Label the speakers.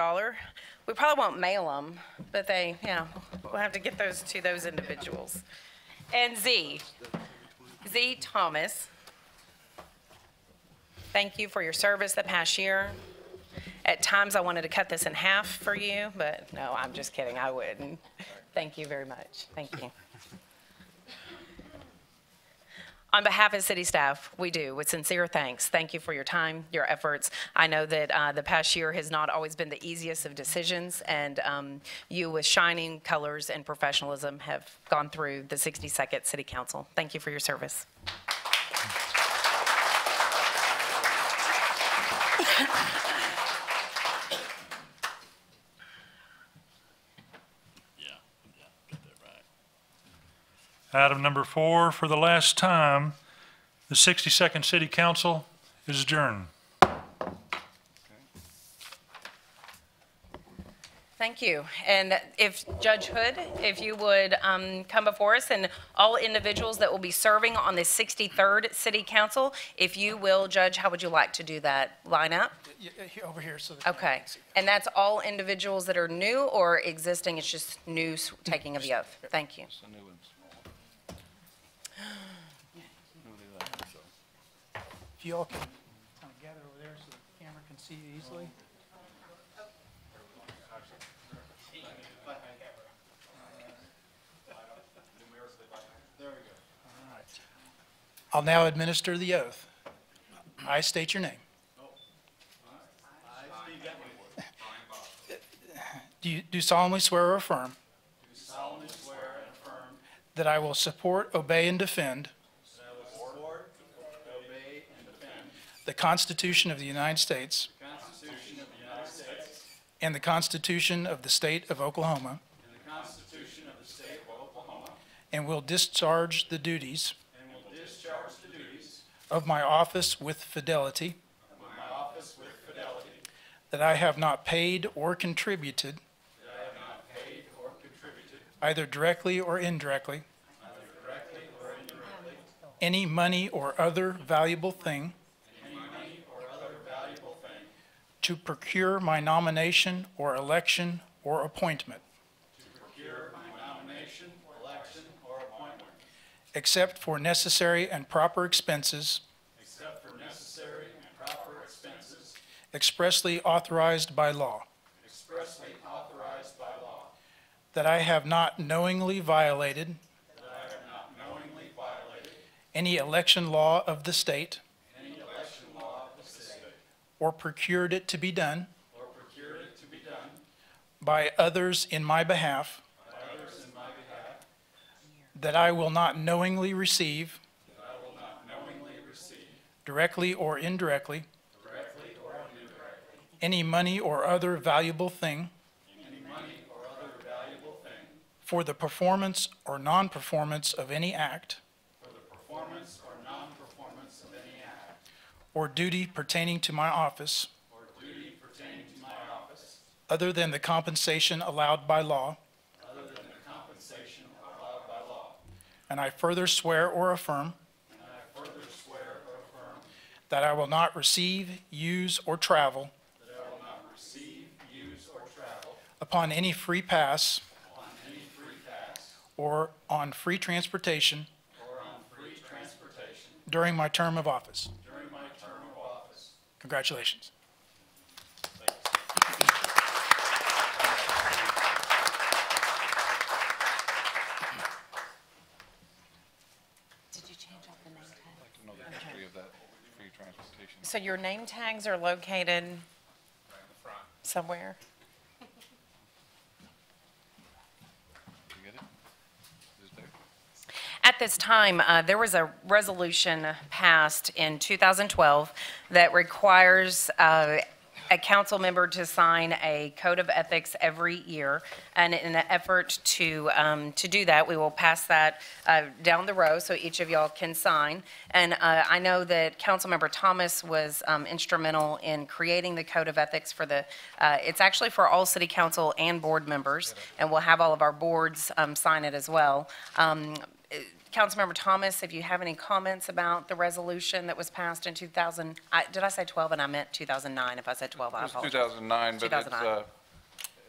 Speaker 1: dollar. We probably won't mail them, but they, you know, we'll have to get those to those individuals. And Z, Z Thomas, thank you for your service the past year. At times, I wanted to cut this in half for you, but no, I'm just kidding, I wouldn't. Thank you very much, thank you. On behalf of city staff, we do, with sincere thanks. Thank you for your time, your efforts. I know that uh, the past year has not always been the easiest of decisions, and um, you, with shining colors and professionalism, have gone through the 62nd City Council. Thank you for your service.
Speaker 2: Yeah, yeah, get that right. Item number four, for the last time, the 62nd City Council is adjourned.
Speaker 1: Thank you. And if Judge Hood, if you would um, come before us, and all individuals that will be serving on the 63rd City Council, if you will, Judge, how would you like to do that lineup?
Speaker 3: Yeah, yeah, here- Over here, so. that-
Speaker 1: Okay, and that's all individuals that are new or existing, it's just new s- taking of the oath? Thank you.
Speaker 4: The new one's smaller.
Speaker 3: If you all can kind of gather over there so the camera can see you easily. All right. I'll now administer the oath. I state your name. Do you do solemnly swear or affirm? Do solemnly swear and affirm. That I will support, obey, and defend. The Constitution of the United States. And the Constitution of the State of Oklahoma. And will discharge the duties. Of my office with fidelity. That I have not paid or contributed. Either directly or indirectly. Any money or other valuable thing. To procure my nomination or election or appointment. Except for necessary and proper expenses. Expressly authorized by law. That I have not knowingly violated. Any election law of the state. Or procured it to be done. By others in my behalf. That I will not knowingly receive. Directly or indirectly. Any money or other valuable thing. For the performance or non-performance of any act. Or duty pertaining to my office. Other than the compensation allowed by law. And I further swear or affirm. That I will not receive, use, or travel. Upon any free pass. Or on free transportation. During my term of office. Congratulations.
Speaker 1: Did you change up the name tag?
Speaker 4: Know the history of that free transportation.
Speaker 1: So your name tags are located somewhere?
Speaker 4: You get it? Is it there?
Speaker 1: At this time, uh, there was a resolution passed in 2012 that requires uh, a council member to sign a code of ethics every year. And in an effort to, um, to do that, we will pass that uh, down the row so each of y'all can sign. And uh, I know that Councilmember Thomas was um, instrumental in creating the code of ethics for the, uh, it's actually for all city council and board members, and we'll have all of our boards um, sign it as well. Um, Councilmember Thomas, if you have any comments about the resolution that was passed in 2000, I- did I say 12 and I meant 2009? If I said 12, I
Speaker 4: It's
Speaker 1: apologize.
Speaker 4: 2009, but it's,
Speaker 1: 2009.
Speaker 4: uh,